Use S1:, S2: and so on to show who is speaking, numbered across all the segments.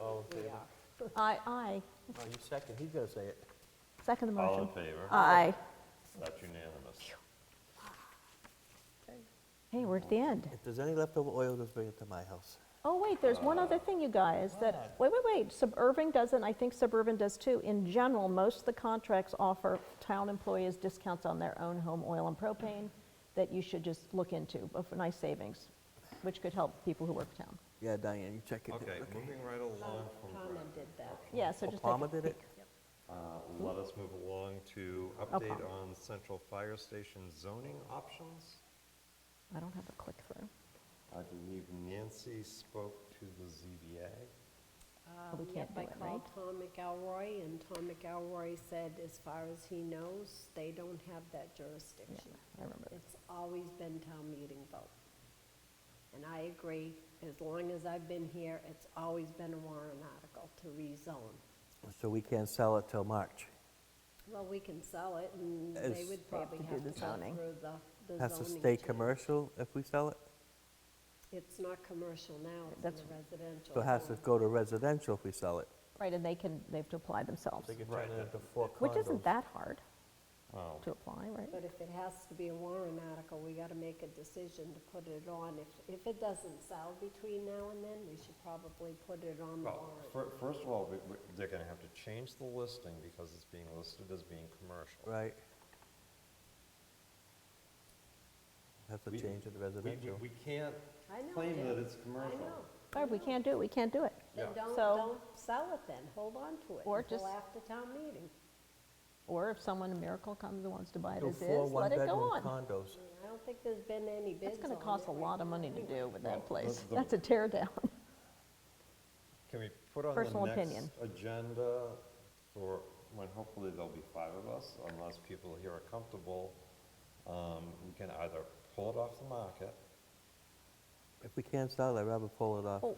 S1: All in favor?
S2: Aye, aye.
S1: No, Oh, you second, he's gonna say it.
S2: Second the
S3: All in
S2: motion.
S3: favor?
S2: Aye.
S3: That's unanimous.
S2: Hey, we're at the end.
S1: If there's any leftover oil, just bring it to my house.
S2: Oh, wait, there's one other thing, you guys, that, wait, wait, wait, Suburban doesn't, I think Suburban does too. In general, most of the contracts offer town employees discounts on their own home oil and propane that you should just look into, of nice savings, which could help people who work for town.
S1: Yeah, Diane, you check it.
S3: Okay, moving right along from,
S2: Yeah, so just take
S1: Obama
S2: a
S1: did it?
S2: peek.
S3: uh, let us move along to update on central fire station zoning options.
S2: I don't have a click-through.
S3: I believe Nancy spoke to the ZBA.
S2: we
S4: Um,
S2: can't
S4: yep,
S2: do it,
S4: I
S2: right?
S4: called Tom McElroy, and Tom McElroy said, as far as he knows, they don't have that jurisdiction.
S2: I remember this.
S4: It's always been town meeting vote. And I agree, as long as I've been here, it's always been a warrant article to rezone.
S1: So we can't sell it till March.
S4: Well, we can sell it, and they
S1: It's-
S4: would probably
S2: to do
S4: have
S2: the
S4: to go
S2: zoning.
S4: through the, the zoning.
S1: Has to stay
S4: change.
S1: commercial if we sell it?
S4: It's not commercial now, it's in
S2: That's-
S4: the residential.
S1: So it has to
S4: zone.
S1: go to residential if we sell it.
S2: Right, and they can, they have to apply themselves,
S1: could
S3: turn it into
S1: four
S2: which isn't that hard
S3: Oh,
S2: to apply, right?
S4: But if it has to be a warrant article, we gotta make a decision to put it on. If, if it doesn't sell between now and then, we should probably put it on the
S3: well,
S4: warrant.
S3: fir- first of all, we- we- they're going to have to change the listing because it's being listed as being commercial.
S1: Right. Have to
S3: We-
S1: change it to
S3: We- We,
S1: residential.
S3: we can't
S4: I know,
S3: claim
S4: Jim.
S3: that it's
S4: I
S3: commercial.
S4: know.
S2: Or if we can't do it, we can't do it.
S4: Then
S3: Yeah.
S4: don't,
S2: So-
S4: don't sell it then. Hold on to it
S2: Or
S4: until
S2: just-
S4: after town meeting.
S2: Or if someone, a miracle comes and wants to buy it
S1: Do
S2: as
S1: four
S2: is, let it go
S1: one-bedroom
S2: on.
S1: condos.
S4: I don't think there's been any bids on
S2: That's
S4: it.
S2: gonna cost a
S4: right
S2: lot of
S4: now
S2: money to
S4: anyway.
S2: do with
S3: Well,
S2: that place.
S3: the-
S2: That's a tear down.
S3: Can we put on
S2: Personal
S3: the next
S2: opinion.
S3: agenda for, when hopefully there'll be five of us, unless people here are comfortable, um, we can either pull it off the market.
S1: If we can't sell it, I'd rather pull it off.
S2: Oh,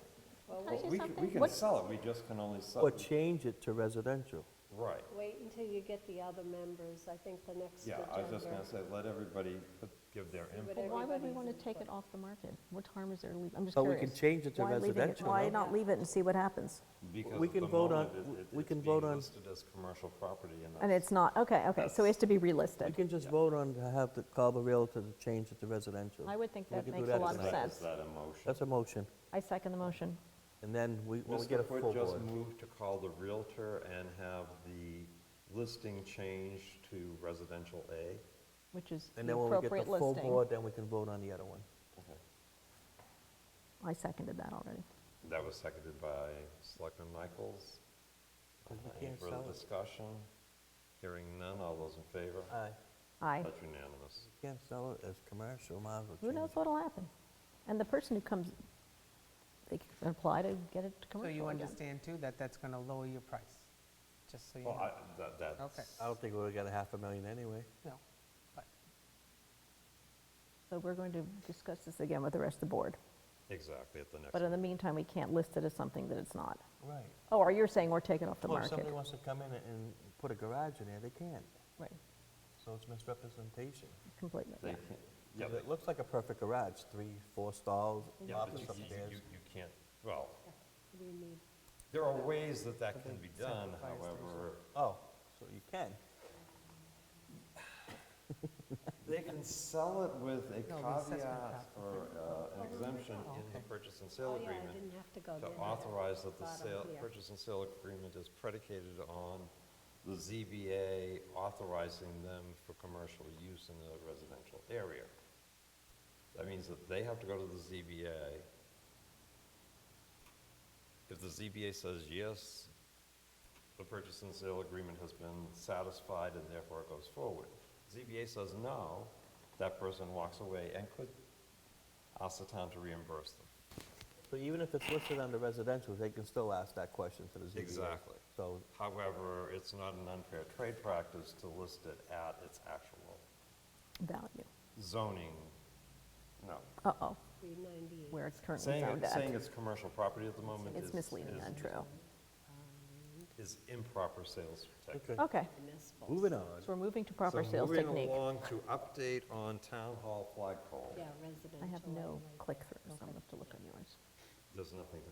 S2: can I say
S3: We can, we
S2: something?
S3: can
S2: What-
S3: sell it, we just can only sell.
S1: Or change it to residential.
S3: Right,
S4: Wait until you get the other members. I think the next
S3: yeah,
S4: agenda.
S3: I was just gonna say, let everybody put- give their
S4: what
S3: input.
S2: But why would we
S4: everybody's
S2: want to
S4: input.
S2: take it off the market? What harm is there leaving? I'm just
S1: But
S2: curious.
S1: we can change it to
S2: Why leave
S1: residential,
S2: Why
S1: no?
S2: not leave it and see what happens?
S3: because
S1: we
S3: at
S1: can
S3: the
S1: vote on-
S3: moment it- it-
S1: we
S3: it's
S1: can
S3: being
S1: vote on-
S3: Listed as commercial property and.
S2: And
S3: that's-
S2: it's not, okay, okay, so it has to be
S1: We
S2: relisted.
S1: can just vote on to have the, call the Realtor to change it to residential.
S2: I would think
S1: We
S2: that
S1: could do
S2: makes
S1: that
S2: a lot
S1: as
S2: of
S1: a-
S3: Is that- is
S2: sense.
S3: that a motion?
S1: That's a motion.
S2: I second the motion.
S1: And then we, when we get a
S3: Mr.
S1: full
S3: Foote
S1: board.
S3: just moved to call the Realtor and have the listing changed to residential A.
S2: Which is
S1: And
S2: the
S1: then when we
S2: appropriate
S1: get the full
S2: listing.
S1: board, then we can vote on the other one.
S2: I seconded that already.
S3: That was seconded by Selectman Michaels.
S1: We
S3: Any
S1: can't
S3: further
S1: sell it.
S3: discussion? Hearing none, all those in favor?
S1: Aye.
S2: Aye.
S3: That's unanimous.
S1: Can't sell it as commercial, might as well
S2: Who
S1: change
S2: knows
S1: it.
S2: what'll happen? And the person who comes, they can apply to get it
S5: So
S2: commercial again.
S5: you understand too that that's going to lower your price, just so you
S3: Well, I,
S5: know.
S3: that, that's,
S1: I don't think we're gonna half a million anyway.
S5: No, but
S2: So we're going to discuss this again with the rest of the board.
S3: exactly, at the next.
S2: But in the
S3: meeting.
S2: meantime, we can't list it as something that it's not.
S1: Right.
S2: Oh, or you're saying we're taking off the
S1: Well, if
S2: market?
S1: somebody wants to come in and put a garage in there, they can't.
S2: Right,
S1: So it's misrepresentation.
S2: completely.
S3: They can't, yeah,
S1: 'Cause
S3: they-
S1: it looks like a perfect garage, three, four stalls,
S3: yeah, but
S1: office
S3: you- you,
S1: upstairs.
S3: you- you can't, well,
S4: We need,
S3: there are ways that that can be done,
S5: Sacrifice station.
S3: however,
S1: Oh, so you can.
S3: they can sell it with a
S5: No, the assessment
S3: caveat
S5: cap.
S3: or uh, an exemption in the purchase and sale
S4: oh yeah,
S3: agreement.
S4: I didn't have to go
S3: to
S4: there.
S3: authorize that the
S4: Bottom
S3: sale,
S4: here.
S3: purchase and sale agreement is predicated on the ZBA authorizing them for commercial use in the residential area. That means that they have to go to the ZBA. If the ZBA says yes, the purchase and sale agreement has been satisfied and therefore it goes forward. ZBA says no, that person walks away and could ask the town to reimburse them.
S1: So even if it's listed under residential, they can still ask that question to the ZBA.
S3: Exactly.
S1: So
S3: However, it's not an unfair trade practice to list it at its actual
S2: Value.
S3: zoning, no.
S2: Uh-oh,
S4: 398.
S2: where it's currently
S3: Saying,
S2: found
S3: it- saying
S2: at.
S3: it's commercial property at the moment is.
S2: It's misleading,
S3: is-
S2: untrue.
S3: Is improper sales technique.
S1: Okay.
S2: Okay,
S4: Municipal.
S1: moving on.
S2: so we're moving to proper
S3: So
S2: sales
S3: Moving
S2: technique.
S3: along to update on town hall flagpole.
S4: Yeah,
S2: I have
S4: residential
S2: no
S4: anyway.
S2: click-throughs, I'm gonna have to look on yours.
S3: There's nothing to